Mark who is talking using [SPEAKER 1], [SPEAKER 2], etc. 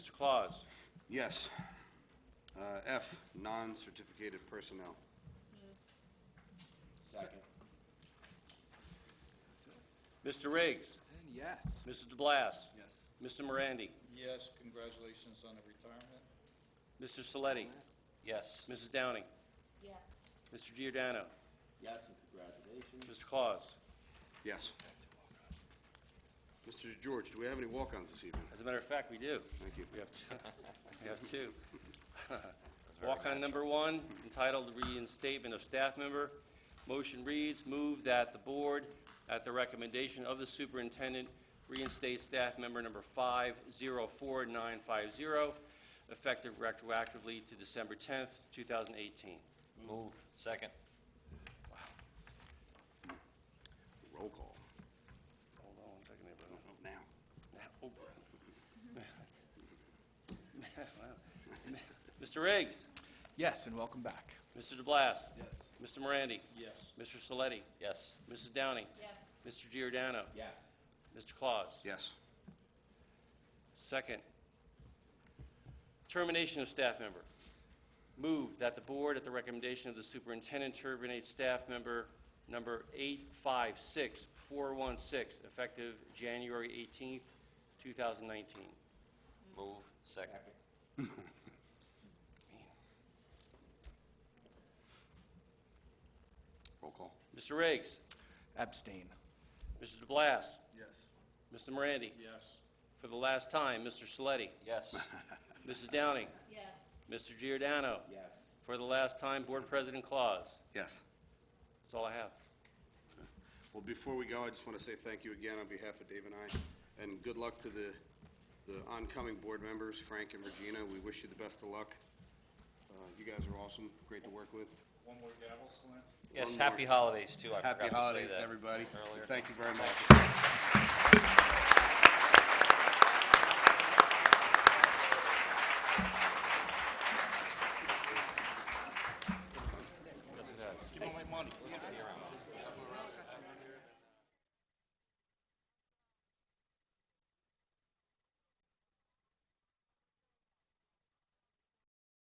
[SPEAKER 1] Claus.
[SPEAKER 2] Yes. Uh, F, non-certificated personnel.
[SPEAKER 1] Mr. Riggs.
[SPEAKER 3] And yes.
[SPEAKER 1] Mrs. DeBlas.
[SPEAKER 3] Yes.
[SPEAKER 1] Mr. Morandi.
[SPEAKER 4] Yes, congratulations on the retirement.
[SPEAKER 1] Mr. Saletti. Yes. Mrs. Downing.
[SPEAKER 5] Yes.
[SPEAKER 1] Mr. Giordano.
[SPEAKER 6] Yes, and congratulations.
[SPEAKER 1] Mr. Claus.
[SPEAKER 2] Yes. Mr. George, do we have any walk-ons this evening?
[SPEAKER 1] As a matter of fact, we do.
[SPEAKER 2] Thank you.
[SPEAKER 1] We have two. We have two. Walk-on number one, entitled Reinstatement of Staff Member. Motion reads, "Move that the board, at the recommendation of the superintendent, reinstate staff member number 504950, effective retroactively to December 10th, 2018."
[SPEAKER 7] Move. Second.
[SPEAKER 2] Roll call.
[SPEAKER 1] Hold on one second, everyone.
[SPEAKER 2] Oh, Now.
[SPEAKER 1] Oh, Mr. Riggs?
[SPEAKER 3] Yes, and welcome back.
[SPEAKER 1] Mr. DeBlas? Mr. Morandi?
[SPEAKER 4] Yes.
[SPEAKER 1] Mr. Saletti?
[SPEAKER 7] Yes.
[SPEAKER 1] Mrs. Downing?
[SPEAKER 5] Yes.
[SPEAKER 1] Mr. Giordano?
[SPEAKER 6] Yes.
[SPEAKER 1] Mr. Claus?
[SPEAKER 2] Yes.
[SPEAKER 1] Second, termination of staff member. Move that the board, at the recommendation of the superintendent, terminate staff member number 856416, effective January 18th, 2019.
[SPEAKER 7] Move. Second.
[SPEAKER 2] Roll call.
[SPEAKER 1] Mr. Riggs?
[SPEAKER 3] Abstain.
[SPEAKER 1] Mr. DeBlas?
[SPEAKER 2] Yes.
[SPEAKER 1] Mr. Morandi?
[SPEAKER 4] Yes.
[SPEAKER 1] For the last time, Mr. Saletti?
[SPEAKER 7] Yes.
[SPEAKER 1] Mrs. Downing?
[SPEAKER 5] Yes.
[SPEAKER 1] Mr. Giordano?
[SPEAKER 6] Yes.
[SPEAKER 1] For the last time, Board President Claus.
[SPEAKER 2] Yes.
[SPEAKER 1] That's all I have.
[SPEAKER 2] Well, before we go, I just want to say thank you again on behalf of Dave and I, and good luck to the, the oncoming board members, Frank and Regina. We wish you the best of luck. Uh, You guys are awesome, great to work with.
[SPEAKER 4] One more gavel slam?
[SPEAKER 7] Yes,
[SPEAKER 2] One more.
[SPEAKER 7] happy holidays, too. I forgot
[SPEAKER 2] Happy
[SPEAKER 7] to say
[SPEAKER 2] holidays
[SPEAKER 7] that
[SPEAKER 2] to everybody.
[SPEAKER 7] Earlier.
[SPEAKER 2] Thank you very much.